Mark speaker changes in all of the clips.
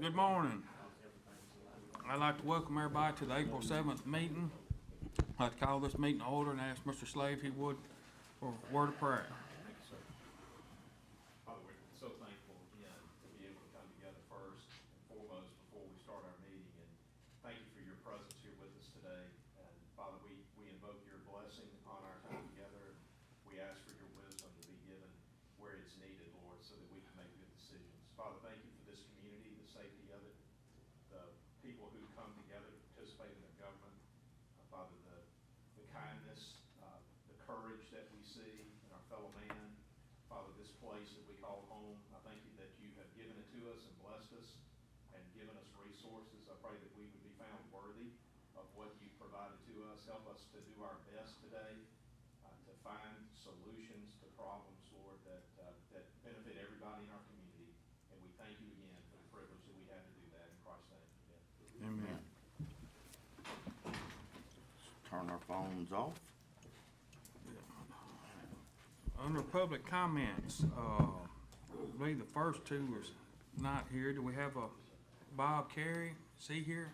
Speaker 1: Good morning. I'd like to welcome everybody to the April seventh meeting. I'd like to call this meeting to order and ask Mr. Slade if he would for a word of prayer.
Speaker 2: Father, we're so thankful again to be able to come together first and foremost before we start our meeting. And thank you for your presence here with us today. And Father, we, we invoke your blessing on our time together. We ask for your wisdom to be given where it's needed, Lord, so that we can make good decisions. Father, thank you for this community, the safety of it, the people who come together to participate in their government. Uh, Father, the, the kindness, uh, the courage that we see in our fellow man, Father, this place that we call home, I thank you that you have given it to us and blessed us and given us resources. I pray that we would be found worthy of what you provided to us. Help us to do our best today uh, to find solutions to problems, Lord, that, uh, that benefit everybody in our community. And we thank you again for the privilege that we have to do that in Christ's name. Amen.
Speaker 1: Amen.
Speaker 3: Turn our phones off.
Speaker 1: Under public comments, uh, I believe the first two was not here. Do we have a Bob Carey? Is he here?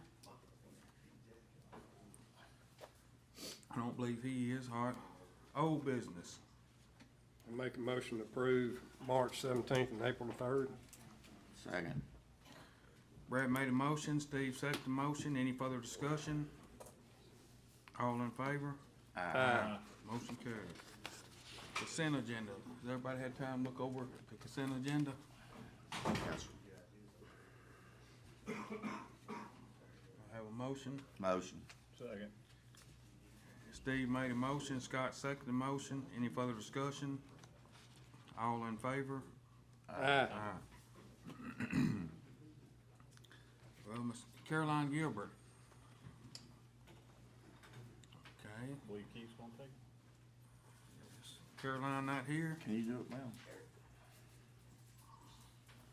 Speaker 1: I don't believe he is. All right. Old business.
Speaker 4: I Make a motion to approve March seventeenth and April the third.
Speaker 3: Second.
Speaker 1: Brad made a motion, Steve seconded the motion, any further discussion? All in favor?
Speaker 4: Aye.
Speaker 1: Motion carried. Consent agenda, has everybody had time to look over the consent agenda?
Speaker 3: Yes.
Speaker 1: I have a motion,
Speaker 3: Motion.
Speaker 1: Steve made a motion, Scott seconded the motion, any further discussion? All in favor?
Speaker 4: Aye.
Speaker 1: Aye. Well, Miss Caroline Gilbert. Okay,
Speaker 5: Believe Keith's gonna take it?
Speaker 1: Caroline not here?
Speaker 3: Can you do it, ma'am?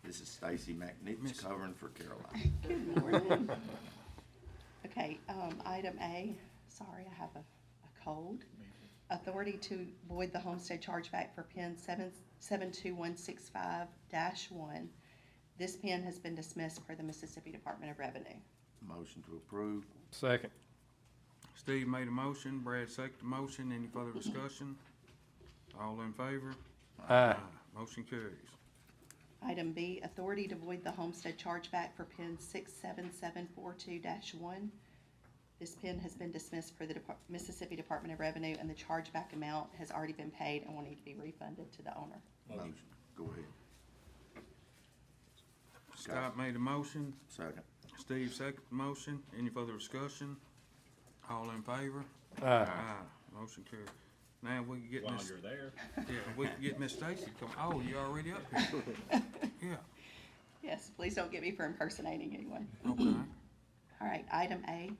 Speaker 3: This is Stacy
Speaker 1: Miss-
Speaker 3: McNich covering for Caroline.
Speaker 6: Good morning. Okay, um, item A, sorry, I have a, a cold. Authority to void the homestead chargeback for pin seven, seven two one six five dash one. This pin has been dismissed per the Mississippi Department of Revenue.
Speaker 3: Motion to approve.
Speaker 4: Second.
Speaker 1: Steve made a motion, Brad seconded the motion, any further discussion? All in favor?
Speaker 4: Aye.
Speaker 1: Motion carries.
Speaker 6: Item B, authority to void the homestead chargeback for pin six seven seven four two one. This pin has been dismissed per the Depar- Mississippi Department of Revenue and the chargeback amount has already been paid and will need to be refunded to the owner.
Speaker 3: Motion. Go ahead.
Speaker 1: Scott made a motion,
Speaker 3: Second.
Speaker 1: Steve seconded the motion, any further discussion? All in favor?
Speaker 4: Aye.
Speaker 1: Aye. Motion carries. Now we can get
Speaker 5: While
Speaker 1: Miss,
Speaker 5: you're there.
Speaker 1: yeah, we can get Miss Stacy to come, oh, you already up here? Yeah,
Speaker 6: Yes, please don't get me for impersonating anyone.
Speaker 1: okay.
Speaker 6: All right, item A,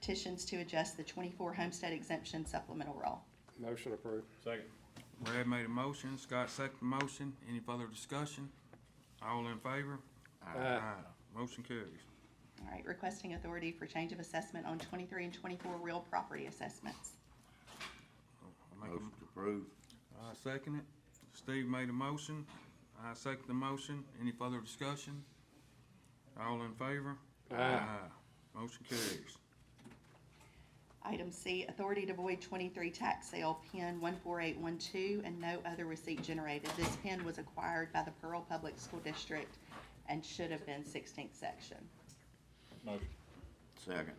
Speaker 6: petitions to adjust the twenty-four homestead exemption supplemental roll.
Speaker 4: Motion approved.
Speaker 5: Second.
Speaker 1: Brad made a motion, Scott seconded the motion, any further discussion? All in favor?
Speaker 3: Uh,
Speaker 4: Aye.
Speaker 1: Motion carries.
Speaker 6: All right, requesting authority for change of assessment on twenty-three and twenty-four real property assessments.
Speaker 1: I'll make a
Speaker 3: Motion to approve.
Speaker 1: I second it. Steve made a motion. I second the motion. Any further discussion? All in favor?
Speaker 4: Aye.
Speaker 1: Motion carries.
Speaker 6: Item C, authority to void twenty-three tax sale pin one-four-eight-one-two and no other receipt generated. This pin was acquired by the Pearl Public School District and should have been sixteenth section.
Speaker 5: Motion.
Speaker 3: Second.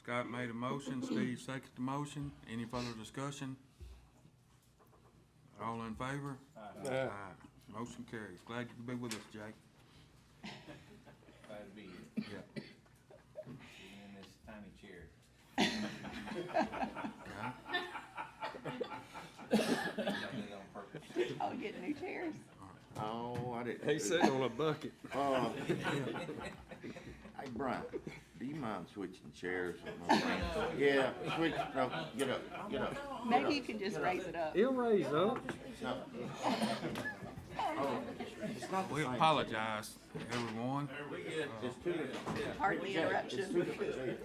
Speaker 1: Scott made a motion. Steve seconded the motion. Any further discussion? All in favor?
Speaker 4: Aye.
Speaker 1: Motion carries. Glad you could be with us, Jake.
Speaker 7: Glad to be here,
Speaker 1: Yeah.
Speaker 7: even in this tiny chair. I did it on purpose.
Speaker 6: Oh, get new chairs.
Speaker 3: Oh, I didn't.
Speaker 4: He's sitting on a bucket.
Speaker 3: Uh, Hey, Brian, do you mind switching chairs? with my friend? Yeah, switch, no, get up, get up.
Speaker 6: Maybe you can just raise it up.
Speaker 4: He'll raise up.
Speaker 3: No. Oh, It's not the
Speaker 1: We
Speaker 3: same.
Speaker 1: apologize, everyone.
Speaker 3: It's two different.
Speaker 6: Pardon the
Speaker 3: It's two
Speaker 6: interruption.
Speaker 3: different chairs.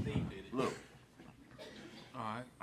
Speaker 7: Steve did it.
Speaker 3: Look,
Speaker 1: All right.